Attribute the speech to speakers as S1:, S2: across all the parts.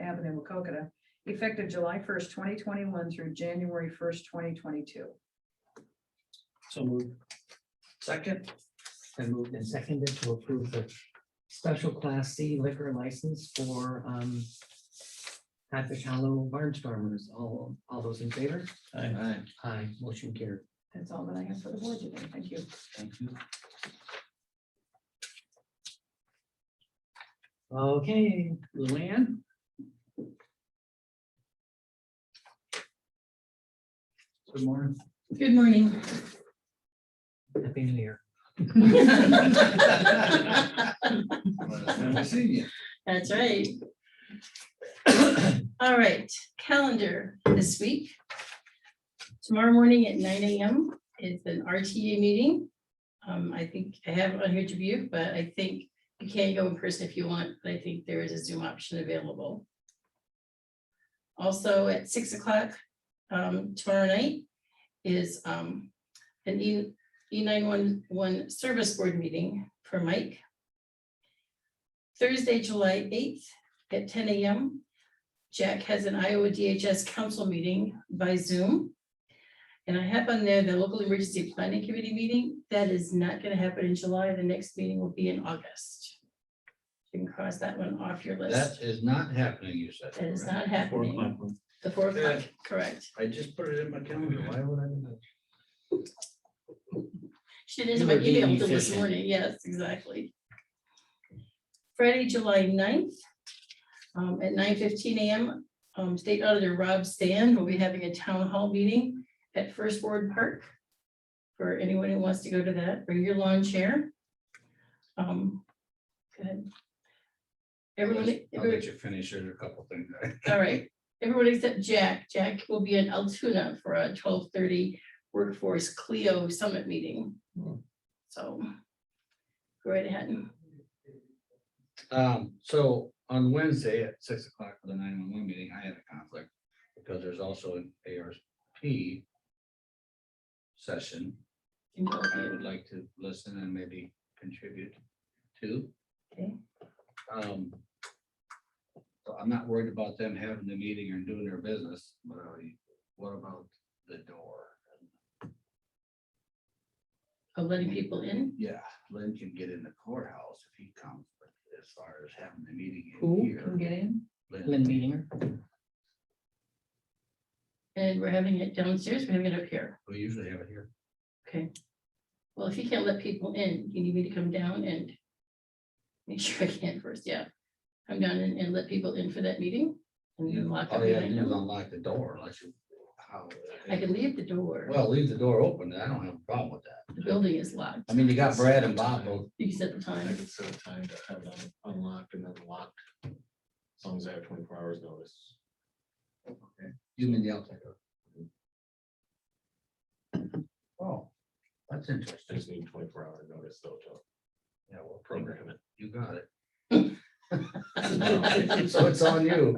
S1: Avenue, Wacokota, effective July first, twenty twenty-one through January first, twenty twenty-two.
S2: So moved. Second.
S3: Been moved and seconded to approve the special class C liquor license for um. Patrick Hollow Barnstormers, all, all those in favor?
S2: Aye.
S3: Aye, motion carried.
S1: That's all that I have for the board today. Thank you.
S2: Thank you.
S3: Okay, Luann?
S2: Good morning.
S4: Good morning.
S3: Happy New Year.
S2: Haven't seen you.
S4: That's right. All right, calendar this week. Tomorrow morning at nine AM is an RTA meeting. Um, I think I have it on here to view, but I think you can go in person if you want, but I think there is a Zoom option available. Also at six o'clock, um, tomorrow night is, um, an E, E nine one one service board meeting for Mike. Thursday, July eighth at ten AM. Jack has an Iowa DHS council meeting by Zoom. And I have on there the local emergency planning committee meeting. That is not gonna happen in July. The next meeting will be in August. You can cross that one off your
S5: That
S4: list.
S5: is not happening, you said.
S4: That is
S5: correct?
S4: not happening. The four o'clock, correct.
S5: I just put it in my calendar. Why would I? do that?
S4: She did
S3: You
S4: in my
S3: were being
S4: email till this
S3: efficient.
S4: morning, yes, exactly. Friday, July 9th, um, at nine fifteen AM, um, State Auditor Rob Stan will be having a town hall meeting at First Ward Park. For anyone who wants to go to that, bring your lawn chair. Um, go ahead.
S5: I'll
S4: Everyone,
S5: let- I'll let you finish. There's a couple things.
S4: all right, everyone except Jack. Jack will be in Altoona for a twelve thirty workforce Clio summit meeting.
S3: Hmm.
S4: So. Go right ahead.
S5: Um, so on Wednesday at six o'clock for the nine one one meeting, I had a conflict because there's also an ARP session.
S4: You can go
S5: I
S4: ahead.
S5: would like to listen and maybe contribute to.
S4: Okay.
S5: Um. So I'm not worried about them having the meeting or doing their business, but I- what about the door?
S4: Of letting people in.
S5: Yeah, Lynn can get in the courthouse if he comes, but as far as having the meeting in
S3: Who can
S5: here.
S3: get in? Lynn
S5: Lynn,
S3: Meeting.
S4: And we're having it downstairs, we're having it up here.
S5: we usually have it here.
S4: Okay. Well, if you can't let people in, you need me to come down and. Make sure I can first, yeah. Come down and, and let people in for that meeting. And then lock up
S5: All Mm. Oh, you have to
S4: behind
S5: do is
S4: them.
S5: unlock the door unless you. how- uh,
S4: I can leave the door.
S5: Well, leave the door open. I don't have a problem with that.
S4: The building is locked.
S5: I mean, you got Brad and Bob both
S4: You set the time.
S6: could set a time to have them unlocked and then locked. As long as I have twenty-four hours notice.
S5: You mean the outside door? Oh, that's
S6: I
S5: interesting.
S6: just need twenty-four hour notice though to
S5: Yeah, well, program,
S6: program it.
S5: you got it. So it's on you.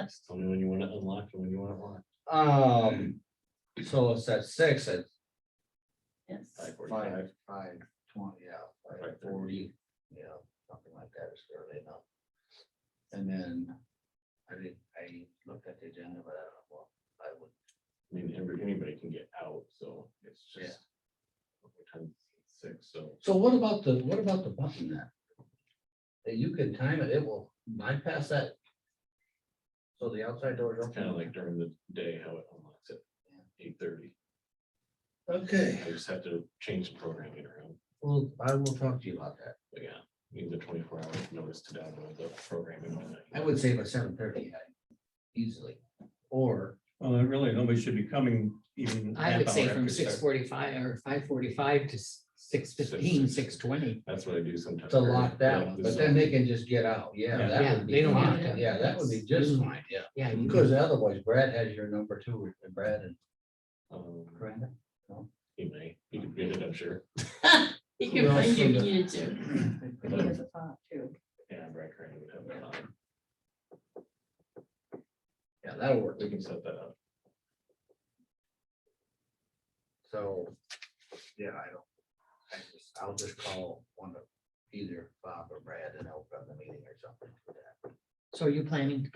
S6: Just tell me when you want it unlocked and when you want it locked.
S5: Um, so it's at six, at
S4: Yes.
S6: Five
S5: five,
S6: forty-five.
S5: five twenty, yeah, five
S6: Five thirty.
S5: forty, yeah, something like that is early enough. And then I did, I looked at the agenda, but I don't know, well, I would
S6: I mean, every, anybody can get out, so it's
S5: Yeah.
S6: just. what time is it? Six, so.
S5: So what about the, what about the button then? That you can time it, it will bypass that. So the outside door is
S6: It's kind of
S5: open.
S6: like during the day how it unlocks it. Eight thirty.
S5: Okay,
S6: I just have to change the programming around.
S5: well, I will talk to you about that.
S6: But yeah, need the twenty-four hour notice to download the programming. on it.
S5: I would say by seven thirty easily, or.
S7: Well, then really, nobody should be coming even.
S3: I would
S7: half
S3: say
S7: hour
S3: from
S7: after
S3: six
S7: start.
S3: forty-five or five forty-five to six fifteen, six twenty.
S6: That's what I do sometimes.
S5: To lock that
S6: Yeah,
S5: one,
S6: this
S5: but
S6: is-
S5: then they can just get out, yeah,
S7: Yeah.
S5: that
S3: Yeah,
S5: would
S3: they
S5: be
S3: don't have
S5: fine,
S3: to.
S5: yeah, that would be just
S3: Mm.
S5: fine, yeah.
S3: Yeah. you-
S5: Because otherwise Brad has your number too, Brad and
S6: Um,
S5: Brenda.
S6: He may, he could get it, I'm sure.
S4: You
S5: Who
S4: can
S5: else
S4: find you if
S5: from the-
S4: you needed to.
S1: He has a thought too.
S6: Yeah, Brad Crane would have that on.
S5: Yeah, that'll work,
S6: We can set that up.
S5: So, yeah, I don't, I just, I'll just call one of either Bob or Brad and open up the meeting or something for that.
S3: So are you planning to